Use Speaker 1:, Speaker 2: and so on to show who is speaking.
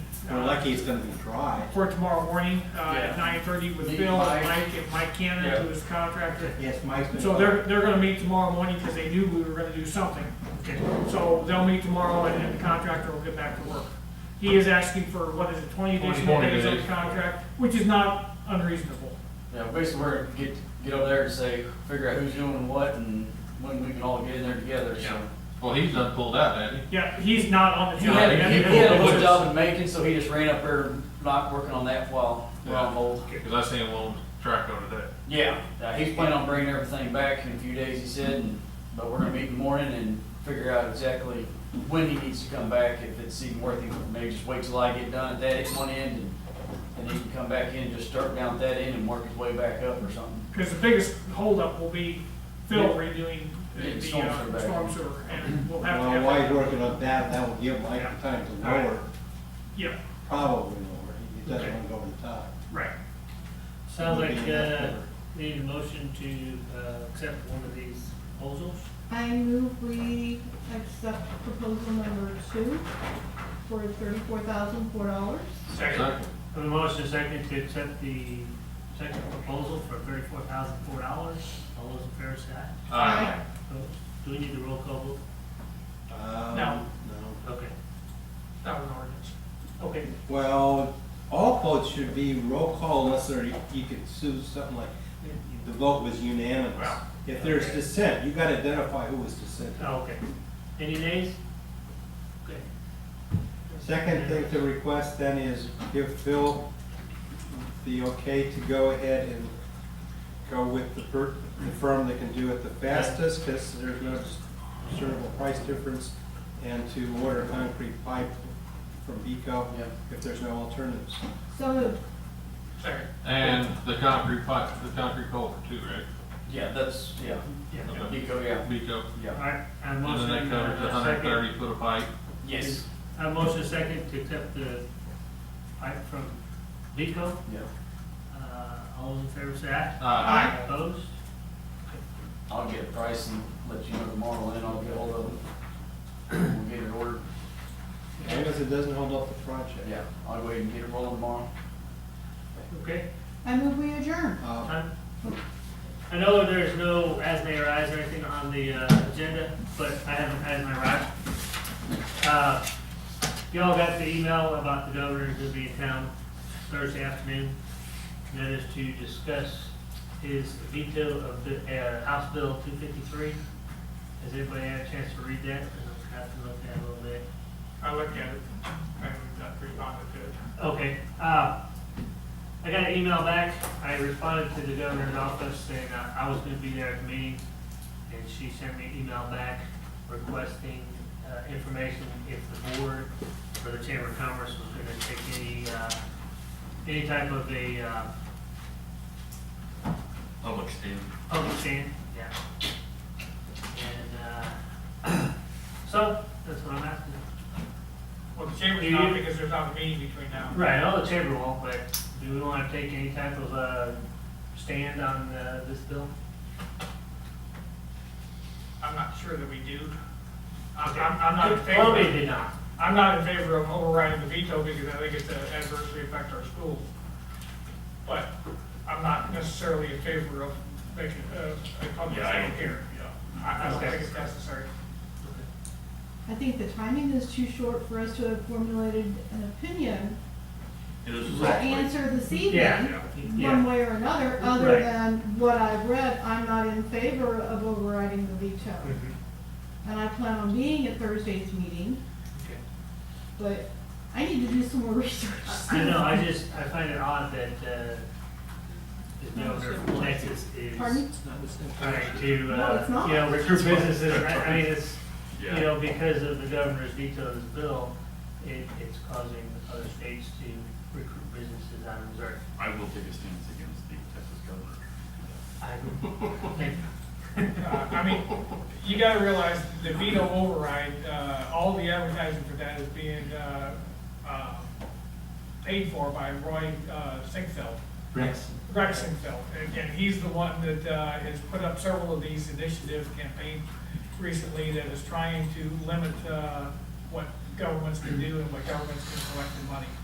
Speaker 1: We're lucky it's gonna be dry.
Speaker 2: for tomorrow morning, uh, at
Speaker 3: Yeah.
Speaker 2: nine thirty with
Speaker 3: Meet
Speaker 2: Bill and
Speaker 3: Mike.
Speaker 2: Mike, and Mike Cannon, who is contractor.
Speaker 1: Yes, Mike's been.
Speaker 2: So they're, they're gonna meet tomorrow morning, because they knew we were gonna do something. So they'll meet tomorrow, and then the contractor will get back to work. He is asking for, what is it, twenty additional
Speaker 3: 20
Speaker 2: days on the
Speaker 3: days.
Speaker 2: contract, which is not unreasonable.
Speaker 3: Yeah, basically, we're gonna get, get over there and say, figure out who's doing what and when we can all get in there together, so.
Speaker 4: Yeah. Well, he's done pulled out, hasn't
Speaker 2: Yeah, he's not on the
Speaker 3: He
Speaker 2: job.
Speaker 3: had,
Speaker 2: yet.
Speaker 3: he he had a wood job in Macon, so he just ran up there, not working on that while we're on hold.
Speaker 4: he? Because I seen him on Traco today.
Speaker 3: Yeah, uh, he's planning on bringing everything back in a few days, he said, and, but we're gonna meet in the morning and figure out exactly when he needs to come back, if it's even worth it, maybe just wait till I get done at that one end and, and he can come back in, just start down at that end and work his way back up or something.
Speaker 2: Because the biggest holdup will be Phil
Speaker 3: Yeah.
Speaker 2: redoing the
Speaker 3: Yeah,
Speaker 2: the,
Speaker 3: storm
Speaker 2: uh,
Speaker 3: sewer back.
Speaker 2: storm sewer, and we'll have to
Speaker 1: Well,
Speaker 2: have
Speaker 1: while he's
Speaker 2: that.
Speaker 1: working up that, that will give Mike the time to
Speaker 2: All right.
Speaker 1: lower,
Speaker 2: Yeah,
Speaker 1: probably lower. He doesn't wanna go over the top.
Speaker 2: right.
Speaker 5: Sounds
Speaker 1: It'll be
Speaker 5: like,
Speaker 1: enough
Speaker 5: uh,
Speaker 1: cover.
Speaker 5: need a motion to, uh, accept one of these proposals.
Speaker 6: I move we accept proposal number two for thirty-four thousand four dollars.
Speaker 4: Second.
Speaker 5: I have a motion second to accept the second proposal for thirty-four thousand four dollars. All those in favor say aye.
Speaker 4: Aye.
Speaker 5: Opposed? Do we need the roll call vote?
Speaker 1: Um,
Speaker 2: uh, No.
Speaker 1: No.
Speaker 5: Okay.
Speaker 2: That was an ordinance.
Speaker 5: Okay.
Speaker 1: Well, all votes should be roll call unless there, you could sue something like, the vote was unanimous.
Speaker 2: Wow.
Speaker 1: If there's dissent, you gotta identify who was dissenting.
Speaker 5: Oh, okay. Any nays? Okay.
Speaker 1: Second thing to request then is give Phil the okay to go ahead and go with the per, the firm that can do it the fastest, because there's no discernible price difference, and to order concrete pipe from Beco
Speaker 3: Yep.
Speaker 1: if there's no alternatives.
Speaker 6: So moved.
Speaker 2: Second.
Speaker 4: And the concrete pipe, the concrete culvert too, right?
Speaker 3: Yeah, that's, yeah,
Speaker 5: Yeah.
Speaker 4: Yeah.
Speaker 3: you go, yeah,
Speaker 4: Beco.
Speaker 5: All
Speaker 3: yeah,
Speaker 5: right. I have a
Speaker 4: And
Speaker 5: motion.
Speaker 4: then that covers
Speaker 5: uh,
Speaker 4: a hundred
Speaker 5: second.
Speaker 4: thirty foot of pipe.
Speaker 3: yes,
Speaker 5: I have a motion second to accept the pipe from Vico.
Speaker 3: yeah.
Speaker 5: Uh, all those in favor say aye.
Speaker 4: Aye.
Speaker 5: Opposed?
Speaker 3: I'll get a price and let you know tomorrow, and I'll get hold of them. We'll get it ordered.
Speaker 1: As long as it doesn't hold up the project.
Speaker 3: Yeah, I'll go ahead and get it rolling tomorrow.
Speaker 5: Okay.
Speaker 6: I move we adjourn.
Speaker 1: Uh,
Speaker 5: I I know there's no as may arise or anything on the uh, agenda, but I haven't had my ride. Uh, Y'all got the email about the governor who'll be in town Thursday afternoon. and That is to discuss his veto of the uh, House Bill 253. Has everybody had a chance to read that? I'll have to look at it a little bit.
Speaker 2: I looked at it, and we responded to it.
Speaker 5: Okay, uh, I got an email back, I responded to the governor's office saying uh, I was gonna be there at the meeting, and she sent me an email back requesting, uh, information if the board or the Chamber of Commerce was gonna take any, uh, any type of a, uh,
Speaker 4: Public stand.
Speaker 5: public stand, yeah. And, uh, so, that's what I'm asking.
Speaker 2: Well, the chamber's not, because there's not a meeting between now.
Speaker 5: Right, I know the chamber won't, but do we want to take any type of uh, stand on uh, this bill?
Speaker 2: I'm not sure that we do. I'm, I'm I'm not in
Speaker 5: Probably
Speaker 2: favor,
Speaker 5: did not.
Speaker 2: I'm not in favor of overriding the veto, because I think it's gonna adversely affect our schools. But I'm not necessarily in favor of making a, a public stand here. I, I don't think it's necessary.
Speaker 6: I think the timing is too short for us to have formulated an opinion
Speaker 4: It was
Speaker 6: or answer this evening,
Speaker 5: Yeah,
Speaker 6: one
Speaker 5: yeah,
Speaker 6: way or another, other
Speaker 5: Right.
Speaker 6: than what I've read, I'm not in favor of overriding the veto.
Speaker 5: Mhm.
Speaker 6: And I plan on being at Thursday's meeting,
Speaker 5: okay.
Speaker 6: but I need to do some more research.
Speaker 5: I I know, I just, I find it odd that uh, the governor of Texas is
Speaker 6: Pardon?
Speaker 5: trying to,
Speaker 6: No, it's
Speaker 5: uh,
Speaker 6: not.
Speaker 5: you know, recruit businesses. I I mean, it's, you know, because of the governor's veto of this bill, it, it's causing other states to recruit businesses out of Missouri.
Speaker 7: I will take a stance against the Texas governor.
Speaker 5: I think
Speaker 2: Uh, I mean, you gotta realize the veto override, uh, all the advertising for that is being, uh, uh, paid for by Roy, uh, Sinkfeld.
Speaker 1: Rex.
Speaker 2: Rex Sinkfeld, and, and he's the one that, uh, has put up several of these initiatives campaign recently that is trying to limit, uh, what governments can do and what governments can collect in money.